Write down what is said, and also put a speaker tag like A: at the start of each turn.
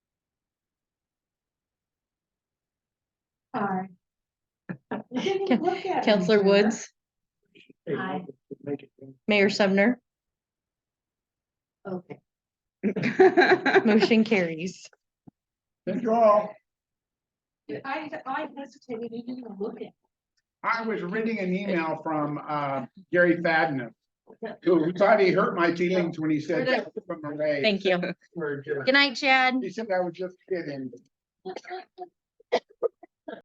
A: Sorry. You didn't look at me,
B: Counselor
A: Sarah.
B: Woods,
A: Aye.
B: Mayor Sumner,
A: Okay,
B: motion carries.
C: That's all.
A: I, I hesitated, you didn't look at.
C: I was reading an email from uh Gary Fadna. Who thought he hurt my feelings when he said. "Keep them away."
B: Thank you.
C: We're just-
D: Good night, Chad.
C: He said I was just kidding.
A: me.